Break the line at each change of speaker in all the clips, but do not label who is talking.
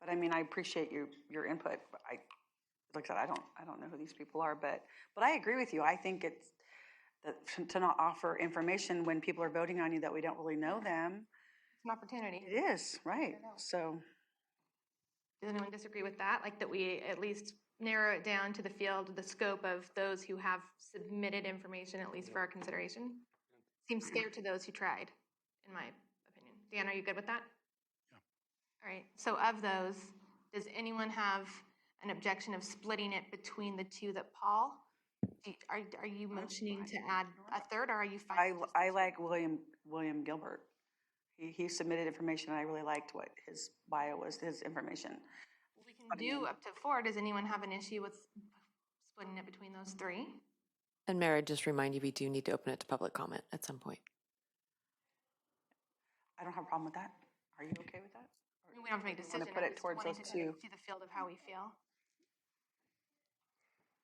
But I mean, I appreciate your, your input. but I, like I said, I don't, I don't know who these people are, but, but I agree with you. I think it's, that to- to not offer information when people are voting on you that we don't really know them,
an opportunity.
it is, right? So,
Does anyone disagree with that? Like that we at least narrow it down to the field, the scope of those who have submitted information, at least for our consideration? Seems fair to those who tried, in my opinion. Dan, are you good with that? All right, so of those, does anyone have an objection of splitting it between the two that Paul? do you- Are, are you motioning to add a third, or are you fine?
I,
with just
I like William, William Gilbert. He, he submitted information, and I really liked what his bio was, his information.
We can do up to four. Does anyone have an issue with splitting it between those three?
And Mara, just remind you, we do need to open it to public comment at some point.
I don't have a problem with that. Are you okay with that?
I mean, We don't have to make
wanna
a decision.
put
I'm
it
just
towards
wanting
those
to kind of
two.
See the field of how we feel.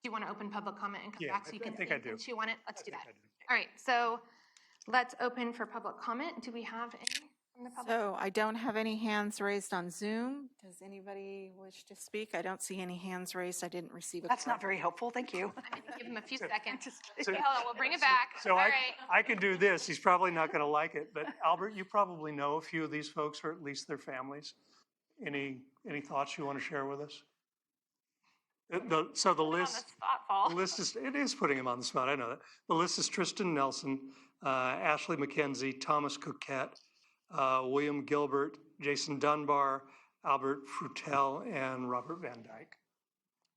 Do you want to open public comment and come
Yeah,
back
I
so you
th- I
can
think I
think and
do.
chew on it? Let's do
think
that.
I do.
All right, so let's open for public comment. Do we have any from the public?
So I don't have any hands raised on Zoom. Does anybody wish to speak? I don't see any hands raised. I didn't receive a.
That's
card.
not very helpful, thank you.
I mean, give them a few seconds.
So-
Oh, we'll bring it back.
So
All
I,
right.
I can do this. He's probably not going to like it, but Albert, you probably know a few of these folks or at least their families. Any, any thoughts you want to share with us? The- The, so the
On the
list,
spot,
the
Paul.
list is, it is putting him on the spot. I know that. The list is Tristan Nelson, uh, Ashley McKenzie, Thomas Coquette, uh, William Gilbert, Jason Dunbar, Albert Frutel, and Robert Van Dyke.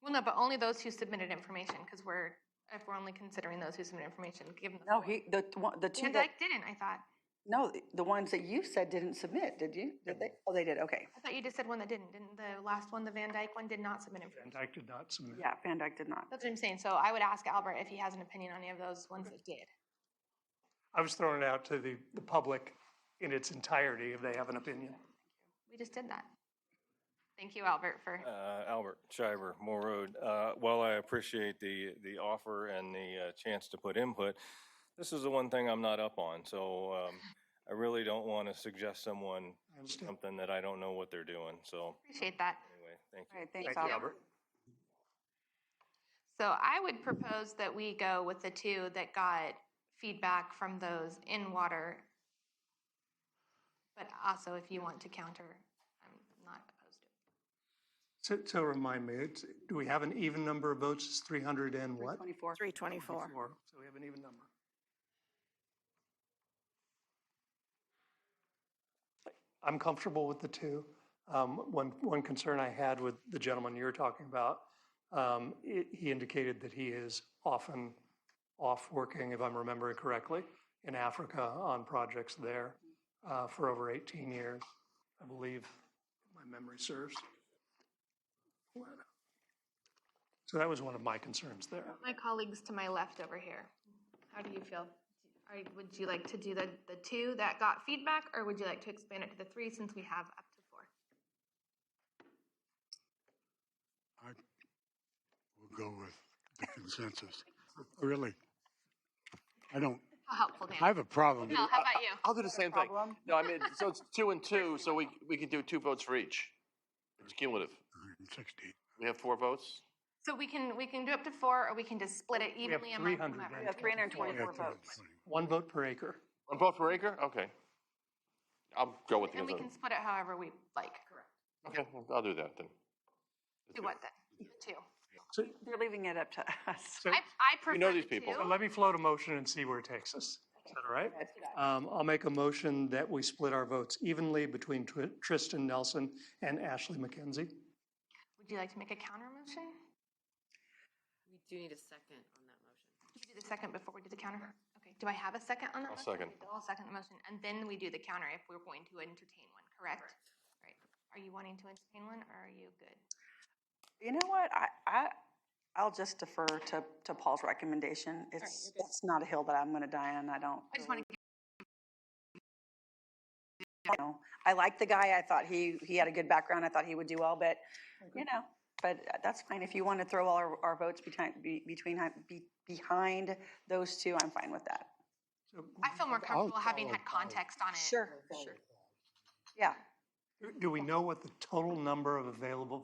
Well, no, but only those who submitted information, because we're, if we're only considering those who submitted information, give them. the
No,
floor.
he, the, one- the two
Van
that,
Dyke didn't, I thought.
no, the ones that you said didn't submit, did you? Did they? Oh, they did, okay.
I thought you just said one that didn't. Didn't the last one, the Van Dyke one, did not submit information?
Van Dyke did not submit.
Yeah, Van Dyke did not.
That's what I'm saying. So I would ask Albert if he has an opinion on any of those ones that did.
I was throwing it out to the, the public in its entirety if they have an opinion.
We just did that. Thank you, Albert, for,
Uh, Albert Shiver, Moore Road. Uh, While I appreciate the, the offer and the uh, chance to put input, this is the one thing I'm not up on, so um, I really don't want to suggest someone
I understand.
something that I don't know what they're doing, so
appreciate that.
anyway, thank
All
you.
right, thanks,
Thank you,
Albert.
Albert.
So I would propose that we go with the two that got feedback from those in water. But also, if you want to counter, I'm not opposed to it.
So, so remind me, it's- do we have an even number of votes? It's 300 and what?
24.
324.
Four. So we have an even number. I'm comfortable with the two. Um, One, one concern I had with the gentleman you were talking about, um, i- he indicated that he is often off working, if I'm remembering correctly, in Africa on projects there uh, for over 18 years, I believe, if my memory serves. So that was one of my concerns there.
My colleagues to my left over here, how do you feel? Are, would you like to do the, the two that got feedback, or would you like to expand it to the three since we have up to four?
I will go with the consensus. Really, I don't,
How helpful, Dan?
I have a problem.
Mel, Oh, how about you?
I'll do the same thing.
problem?
No, I mean, so it's two and two, so we, we can do two votes for each. It's cumulative.
160.
We have four votes.
So we can, we can do up to four, or we can just split it
have
evenly among
300
whomever.
then.
Yeah, 324
Yeah,
votes.
220.
One vote per acre.
One vote per acre? Okay. I'll go with the
And we can
consensus.
split it however we like. Correct.
Okay, I'll do that then.
Do what then? The Two.
So,
They're leaving it up to us.
so
I, I prefer
We know these
the
people.
two.
so let me float a motion and see where it takes us. Is that all right? Um, I'll make a motion that we split our votes evenly between Tr- Tristan Nelson and Ashley McKenzie.
Would you like to make a counter motion?
We do need a second on that motion.
You can do the second before we do the counter. Okay, do I have a second on that?
I'll
motion?
second.
Okay, I'll second the motion, and then we do the counter if we're going to entertain one, correct? Right. Are you wanting to entertain one, or are you good?
You know what, I, I, I'll just defer to, to Paul's recommendation. It's, it's not a hill that I'm gonna die on, I don't.
I just want to,
you know, I like the guy, I thought he, he had a good background, I thought he would do well, but, you know, but uh, that's fine, if you want to throw all our, our votes between, be- between, be- behind those two, I'm fine with that.
So
I feel more comfortable having
follow
had
Paul.
context on it.
Sure, sure. Yeah,
Do- Do we know what the total number of available